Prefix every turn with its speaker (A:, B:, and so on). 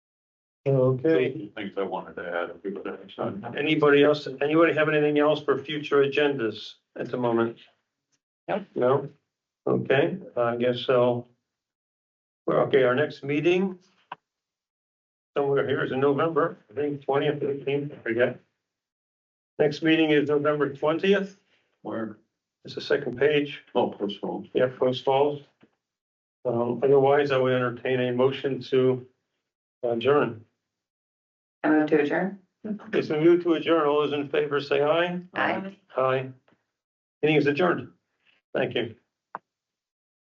A: Okay,
B: Things I wanted to add, if we could, next time.
A: anybody else, anybody have anything else for future agendas at the moment?
C: Nope.
A: No? Okay, I guess so. Well, okay, our next meeting somewhere here is in November, I think twentieth, fifteenth, I forget. Next meeting is November twentieth,
B: where,
A: it's the second page,
B: oh, postpone.
A: yeah, Post Falls. Um, otherwise, I would entertain a motion to adjourn.
C: I move to adjourn.
A: It's been moved to adjourn. All those in favor say aye.
C: Aye.
A: Aye. Meeting is adjourned. Thank you.